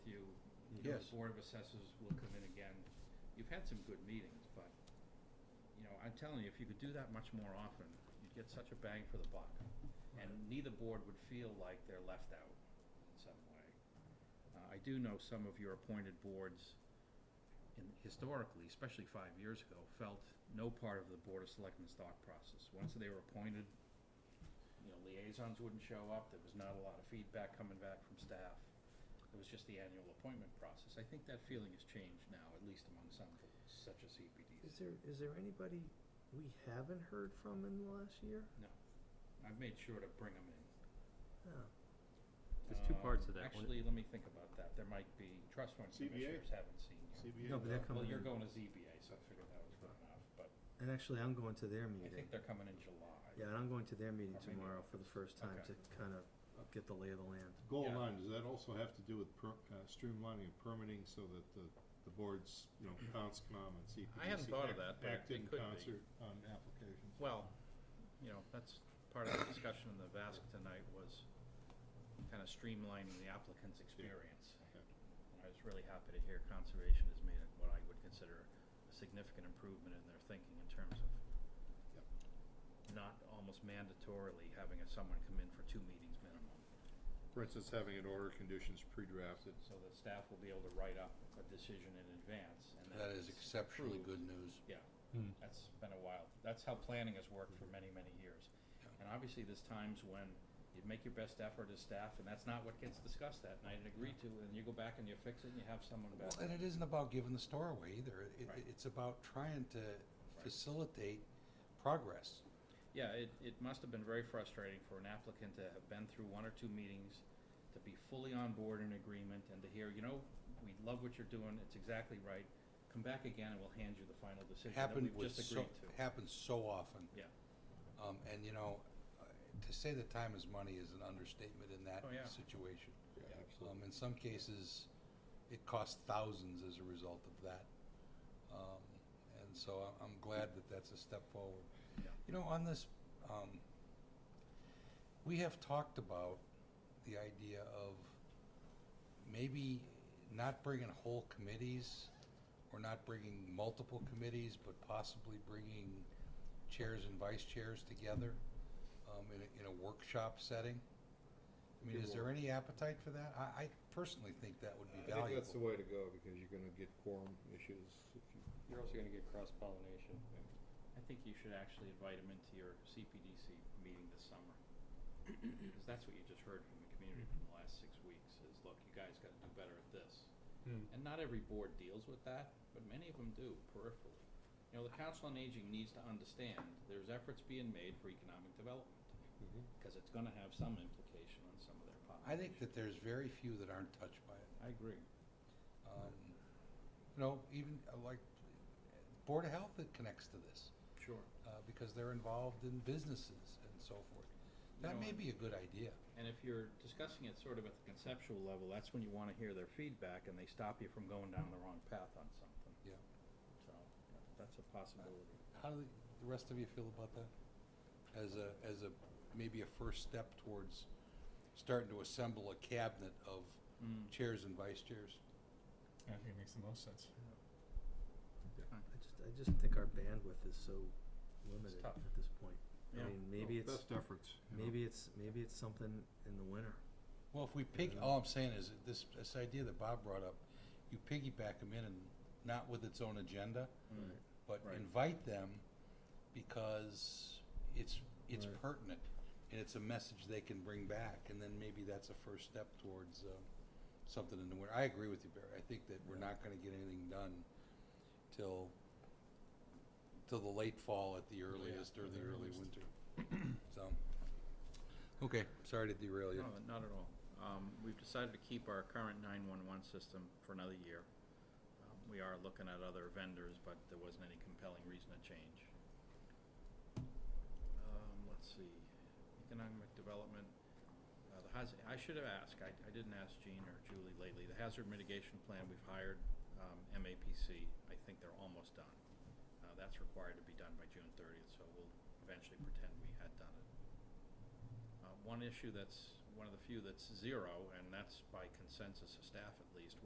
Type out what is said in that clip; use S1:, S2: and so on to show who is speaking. S1: Board of Assessors will come in again. You've had some good meetings, but, you know, I'm telling you, if you could do that much more often, you'd get such a bang for the buck. And
S2: Right.
S1: neither board would feel like they're left out in some way. Uh, I do know some of your appointed boards in, historically, especially five years ago, felt no part of the Board of Selectmen's thought process. Once they were appointed, you know, liaisons wouldn't show up, there was not a lot of feedback coming back from staff. It was just the annual appointment process. I think that feeling has changed now, at least among some boards, such as
S2: Is
S1: CPDs.
S2: there, is there anybody we haven't heard from in the last year?
S1: I've made sure to bring them in.
S2: No.
S3: There's two parts
S1: Um,
S3: to that. One-
S1: Actually, let me think about that. There might be, trust fund
S4: CBA?
S1: commissioners haven't seen you.
S4: CBA.
S2: No, but they're
S4: no?
S1: Well,
S2: coming
S1: you're
S2: in,
S1: going to ZBA, so I figured that was good enough, but
S2: and actually, I'm going to their
S1: I
S2: meeting.
S1: think they're coming in July.
S2: Yeah, and I'm going to their meeting
S1: Or maybe-
S2: tomorrow for the first time
S1: Okay.
S2: to kind of get the lay of the land.
S4: Goal
S1: Yeah.
S4: line, does that also have to do with per, uh, streamlining of permitting so that the, the boards, you know, bounce comm and CPDC?
S1: I hadn't thought of that,
S4: act-
S1: but
S4: Act
S1: it
S4: in
S1: could be.
S4: concert on applications.
S1: Well, you know, that's part of the discussion in the VASC tonight was kind of streamlining the applicant's experience.
S4: Okay.
S1: I was really happy to hear conservation has made it what I would consider a significant improvement in their thinking in terms of
S4: Yep.
S1: not almost mandatorily having a- someone come in for two meetings minimum.
S4: For instance, having an order of conditions pre-drafted.
S1: So the staff will be able to write up a decision in advance and then.
S5: That is
S1: it's
S5: exceptionally
S1: approved.
S5: good news.
S1: Yeah,
S3: Hmm.
S1: that's been a while. That's how planning has worked
S5: Hmm.
S1: for many, many years. And obviously, there's times when you make your best effort as staff, and that's not what gets discussed that night and agreed to, and you go back and you fix it and you have someone back.
S5: Well, and it isn't about giving the store away either. It,
S1: Right.
S5: it, it's about trying to facilitate progress.
S1: Yeah, it, it must have been very frustrating for an applicant to have been through one or two meetings, to be fully on board in agreement, and to hear, you know, we love what you're doing, it's exactly right, come back again and we'll hand you the final decision that
S5: Happened
S1: we've
S5: with
S1: just
S5: so,
S1: agreed to.
S5: happens so often.
S1: Yeah.
S5: Um, and you know, uh, to say that time is money is an understatement in that
S1: Oh, yeah.
S5: situation.
S4: Yeah,
S1: Yeah.
S5: Um, in some cases, it costs thousands as a result of that. Um, and so I- I'm glad that that's a step forward.
S1: Yeah.
S5: You know, on this, um, we have talked about the idea of maybe not bringing whole committees or not bringing multiple committees, but possibly bringing chairs and vice chairs together um, in, a, in a workshop setting. I mean,
S4: Yeah,
S5: is there any appetite for that? I, I personally think that would be
S4: I think that's the
S5: valuable.
S4: way to go, because you're gonna get quorum issues if you.
S3: You're also gonna get cross pollination.
S1: I think you should actually invite them into your CPDC meeting this summer. Because that's what you just heard from the community from the last six weeks, is look, you guys gotta do better at this. And not every board deals with that, but many of them do peripherally. You know, the Council on Aging needs to understand there's efforts being made for economic development,
S4: Mhm.
S1: because it's gonna have some implication on some of their population.
S5: I think that there's very few that aren't touched by it.
S1: I agree.
S5: Um, you know, even uh, like Board of Health that connects to this,
S1: Sure.
S5: uh, because they're involved in businesses and so forth.
S1: You
S5: That
S1: know,
S5: may
S1: and-
S5: be a good idea.
S1: And if you're discussing it sort of at the conceptual level, that's when you wanna hear their feedback and they stop you from going down the wrong path on something.
S5: Yeah.
S1: So, that's a possibility.
S5: How do the rest of you feel about that? As a, as a, maybe a first step towards starting to assemble a cabinet of
S1: Mm,
S5: chairs and vice chairs?
S3: I think it makes the most sense.
S2: I just, I just think our bandwidth is so limited
S1: tough.
S2: at this point. I
S1: Yeah.
S2: mean, maybe
S4: Well,
S2: it's,
S4: Best efforts. you know.
S2: maybe it's, maybe it's something in the winter.
S5: Well, if we pig,
S2: Yeah.
S5: all I'm saying is that this, this idea that Bob brought up, you piggyback them in and not with its own agenda,
S1: Mm.
S5: but
S1: Right.
S5: invite them because it's, it's
S2: Right.
S5: pertinent and it's a message they can bring back. And then maybe that's a first step towards, um, something in the winter. I agree with you, Barry. I think that we're
S2: Yeah.
S5: not gonna get anything done till, till the late fall at the earliest or the early winter. So, okay, sorry to derail you.
S1: No, not at all. Um, we've decided to keep our current nine-one-one system for another year. Um, We are looking at other vendors, but there wasn't any compelling reason to change. Um, let's see, economic development, uh, the hazard, I should have asked, I, I didn't ask Jean or Julie lately, the hazard mitigation plan, we've hired, um, MAPC, I think they're almost done. Uh, that's required to be done by June thirtieth, so we'll eventually pretend we had done it. Uh, one issue that's, one of the few that's zero, and that's by consensus of staff at least,